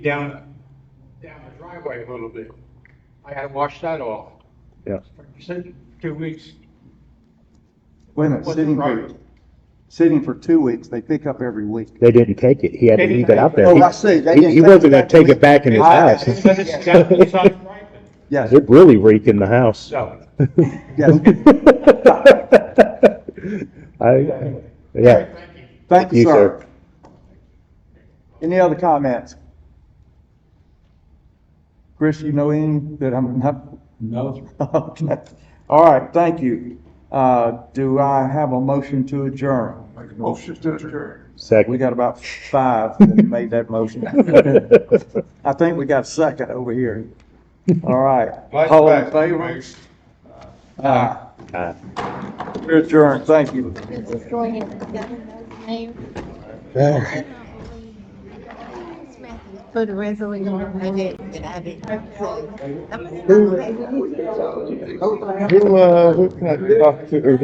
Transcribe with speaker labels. Speaker 1: down, down the driveway a little bit. I had to wash that off.
Speaker 2: Yeah.
Speaker 1: For si- Two weeks.
Speaker 3: Wait a minute,
Speaker 1: wasn't
Speaker 3: sitting
Speaker 1: right.
Speaker 3: for, sitting for two weeks, they pick up every week.
Speaker 2: They didn't take it. He had to leave it out there.
Speaker 3: Oh,
Speaker 2: He-
Speaker 3: I see. They
Speaker 2: He,
Speaker 3: didn't
Speaker 2: he
Speaker 3: take
Speaker 2: wasn't
Speaker 3: it
Speaker 2: gonna
Speaker 3: back to
Speaker 2: take
Speaker 3: me.
Speaker 2: it back in his
Speaker 3: I-
Speaker 2: house.
Speaker 1: Because it's down- it's on right,
Speaker 3: Yes,
Speaker 2: It really reeked in the house.
Speaker 1: So,
Speaker 3: yes.
Speaker 2: I, yeah.
Speaker 3: Thank you,
Speaker 2: You,
Speaker 3: sir.
Speaker 2: sir.
Speaker 3: Any other comments? Chris, you know any that I'm not?
Speaker 4: No.
Speaker 3: Okay. All right, thank you. Uh, do I have a motion to adjourn?
Speaker 4: Make a motion to adjourn.
Speaker 3: We
Speaker 2: Second.
Speaker 3: got about five that made that motion. I think we got a second over here. All right. All in favor? Aye.
Speaker 2: Aye.
Speaker 3: We're adjourned, thank you.
Speaker 5: This is going in the governor's name. For the resolution, I did, and I did. I'm gonna-
Speaker 2: Who, uh, who can I talk to,